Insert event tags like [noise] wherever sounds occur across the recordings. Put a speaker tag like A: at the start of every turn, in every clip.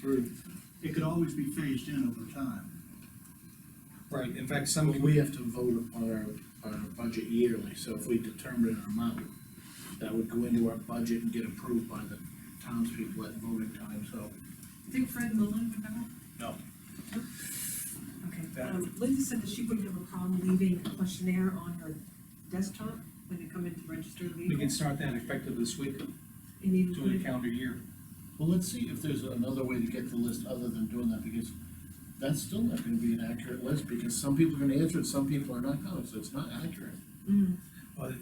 A: through, it could always be phased in over time.
B: Right, in fact, some,
C: Something we have to vote upon our, on our budget yearly, so if we determine an amount, that would go into our budget and get approved by the townspeople at voting time, so.
D: Think Fred Mullin would know?
B: No.
D: Okay,
B: That-
D: um, Linda said that she wouldn't have a problem leaving a questionnaire on her desktop when you come in to register
B: we
D: legal.
B: can start that effective this week,
D: And even
B: to the
D: when
B: calendar year.
C: Well, let's see if there's another way to get the list other than doing that, because that's still not gonna be an accurate list, because some people are gonna answer it, some people are not gonna, so it's not accurate.
B: Well,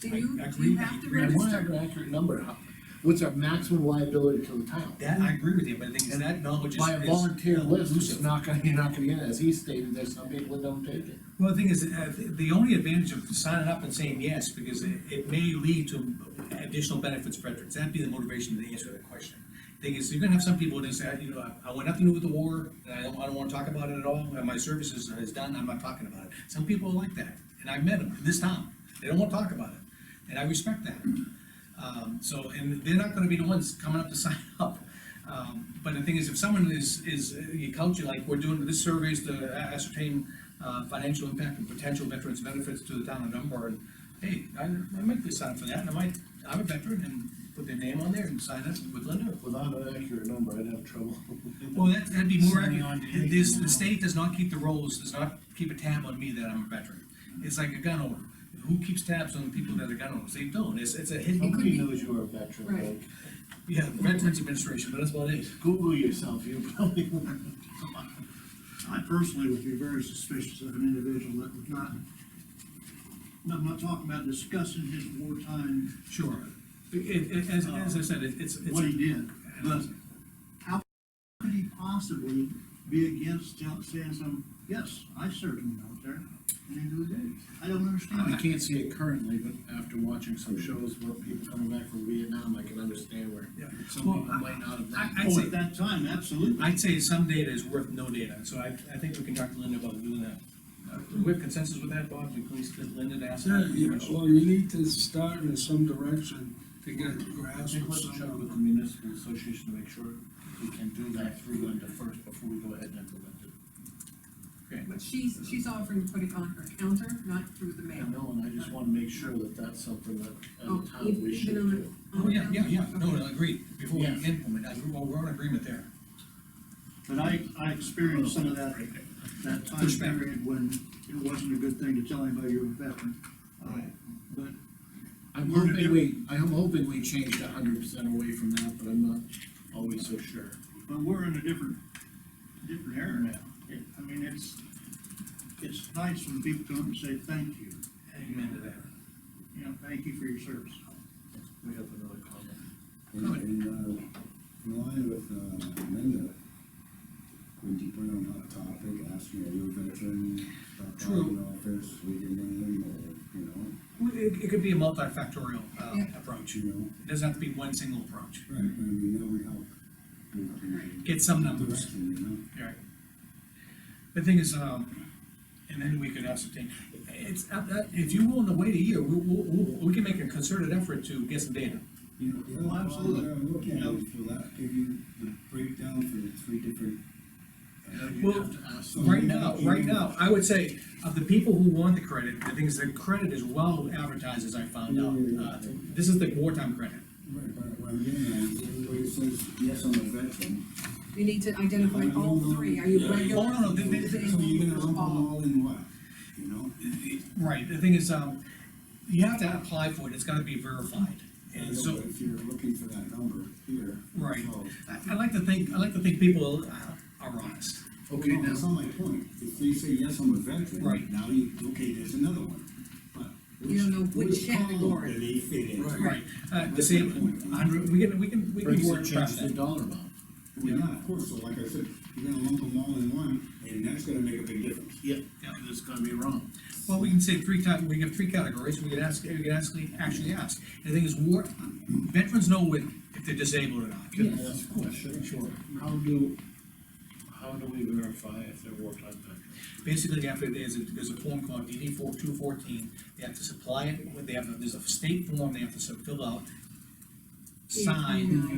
D: Do
B: I-
D: you,
B: I
D: do you
B: agree
D: have
B: with
D: to
C: And I wanna have
D: register?
C: an accurate number, How- what's our maximum liability to the town?
B: That, I agree with you, but the thing is, that knowledge is.
C: By a
B: is
C: volunteer list, it's
B: elusive.
C: not gonna, [laughs] you're not gonna get it, as he stated, there's some people that don't take it.
B: Well, the thing is, uh, the- the only advantage of signing up and saying yes, because it, it may lead to additional benefits for veterans, that'd be the motivation to answer that question. Thing is, you're gonna have some people that say, you know, I- I want nothing to do with the war, and I don't, I don't wanna talk about it at all, and my service is, is done, I'm not talking about it. Some people are like that, and I've met them in this town, they don't wanna talk about it, and I respect that. Um, so, and they're not gonna be the ones coming up to [laughs] sign up. Um, but the thing is, if someone is, is, uh, you couch it like, we're doing, this survey is to ascertain, uh, financial impact and potential veterans' benefits to the town of Dunbar, and, hey, I, I might be signed for that, and I might, I'm a veteran, and put their name on there and sign up with Linda.
C: Without an accurate number, I'd have trouble. [laughs]
B: Well, that, that'd be more,
C: Signing on to
B: accurate.
C: anything,
B: this,
C: you know.
B: the state does not keep the rolls, does not keep a tab on me that I'm a veteran. It's like a gun owner, who keeps tabs on the people that are gun owners? They don't, it's, it's a hidden,
C: Nobody knows you're a veteran,
D: Right.
C: like,
B: yeah, Veterans Administration, but that's what it is.
C: Google yourself, you probably. [laughs]
A: I personally would be very suspicious of an individual that would not, No, I'm not talking about discussing his wartime,
B: Sure. It, it, as, as I said, it- it's, it's.
A: what he did, but how could he possibly be against tell- saying some, yes, I served in the military, and he did it. I don't understand
C: I
A: that.
C: can't see it currently, but after watching some shows where people coming back from Vietnam, I can understand where
B: Yeah.
C: some
B: Well,
C: people might not have.
B: I- I'd
A: Oh,
B: say-
A: at that time, absolutely.
B: I'd say some data is worth no data, so I, I think we can talk to Linda about doing that. Uh, Do we have consensus with that, Bob? We please get Linda to ask
E: Yeah,
B: that
E: yeah,
B: question.
E: well, you need to start in some direction to get a
C: I
E: grasp
C: think
E: of
C: let's check with the
E: something.
C: municipal association to make sure we can do that through Linda first before we go ahead and implement it.
D: But she's, she's offering to put it on her counter, not through the
C: I
D: mail.
C: know, and I just wanna make sure that that's something that,
D: Oh,
C: as a town, we
D: even
C: should
D: on the-
C: do.
B: Oh, yeah, yeah, yeah, no, no, agreed, before we
C: Yeah.
B: implement, I, well, we're in agreement there.
A: But I, I experienced some of that, that time
B: Pushback.
A: period when it wasn't a good thing to tell anybody you're a veteran. Uh,
C: Right.
A: But
C: I'm
A: We're
C: hoping
A: gonna-
C: we, I'm hoping we changed a hundred percent away from that, but I'm not always so sure.
A: But we're in a different, different era now. It- I mean, it's, it's nice when people come and say, thank you,
B: Amen to that.
A: you know, thank you for your service.
C: We have another comment.
F: And, and, uh, in line with, uh, Linda, when you bring on that topic, asking, are you a veteran? About
B: True.
F: filing Office, with your name, or, you know,
B: Well, It, it could be a multifactorial, uh,
D: Yeah.
B: approach,
F: you
B: it
F: know,
B: doesn't have to be one single approach,
F: right, and we know we help. you know, in
B: get some
F: the
B: numbers.
F: Direction, you know?
B: Right. The thing is, um, and then we could ascertain, it's, uh, uh, if you're willing to wait a year, we, we, we- we can make a concerted effort to get some data.
F: You know, the other
A: Well, absolutely.
F: problem I look
A: You know-
F: at is, will that give you the breakdown for the three different? uh,
C: You
B: Well,
C: have to ask
F: so
B: Right
F: you-
B: now,
F: you-
B: right now, I would say, of the people who want the credit, the thing is, the credit is well advertised, as I found
C: Mm-hmm.
B: out. Uh, This is the wartime credit.
F: Right, but what I'm getting at is, everybody says, yes, I'm a veteran,
D: You need to identify all three, are you
F: Yeah.
D: regular?
B: Oh, no, no, they- they-
F: so you're gonna
D: disabled,
F: lump
D: or all?
F: them all in what, you know? It- it-
B: Right, the thing is, um, you have to apply for it, it's gotta be verified, and so.
F: If you're looking for that number here.
B: Right.
C: Oh.
F: so-
B: I, I like to think, I like to think people uh, are honest.
F: Okay, that's not my point, if they say, yes, I'm a
B: Right.
F: veteran, now you, okay, there's another one, but.
D: You don't know which
F: column
D: category.
F: Do they fit in?
B: Right. Uh, the same, hundred, we can, we can, we can
C: Brings
B: work
C: it
B: past
C: changes the
B: that.
C: dollar amount.
F: Well, yeah, of course, so like I said, you're gonna lump them all in one, and that's gonna make a big difference.
C: Yep, and it's gonna be wrong.
B: Well, we can say three type, we have three categories, we can ask, we can actually, actually ask. And the thing is, war, veterans know when, if they're disabled or not.
C: Yes, of course, sure, sure. How do, how do we verify if they're wartime veterans?
B: Basically, after there's a, there's a form called DD four two fourteen, they have to supply it, with- they have, a- there's a state form they have to fill out,
D: Yeah, I know.
B: sign,